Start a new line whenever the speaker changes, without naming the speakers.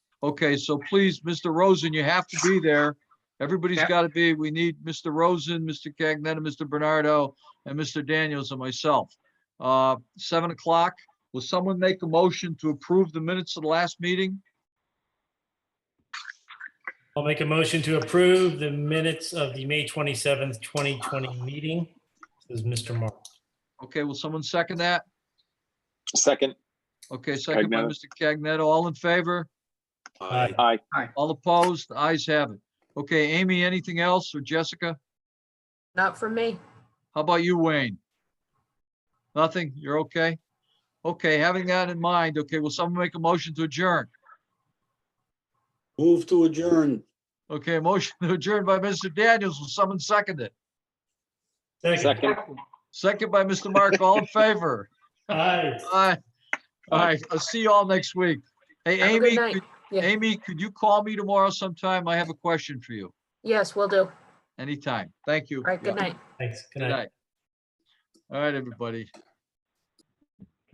Okay, so please, Mr. Rosen, you have to be there. Everybody's
Yeah.
got to be. We need Mr. Rosen, Mr. Cagnetta, Mr. Bernardo, and Mr. Daniels and myself. Uh, Seven o'clock, will someone make a motion to approve the minutes of the last meeting?
I'll make a motion to approve the minutes of the May 27th, 2020 meeting. This is Mr. Mark.
Okay, will someone second that?
Second,
Okay, second by
Cagnetta.
Mr. Cagnetta. All in favor?
Aye.
aye.
All opposed? The Ayes have it. Okay, Amy, anything else? Or Jessica?
Not for me.
How about you, Wayne? Nothing? You're okay? Okay, having that in mind, okay, will someone make a motion to adjourn?
Move to adjourn.
Okay, motion to adjourn by Mr. Daniels. Will someone second it?
Second.
Second,
Second by Mr. Mark. All in favor?
Aye.
Aye. All right, I'll see you all next week. Hey,
Have a good
Amy,
night.
could-
Yeah.
Amy, could you call me tomorrow sometime? I have a question for you
Yes, we will do. All
anytime. Thank you.
right, good night.
Thanks. Good
Good
night.
night. All right, everybody.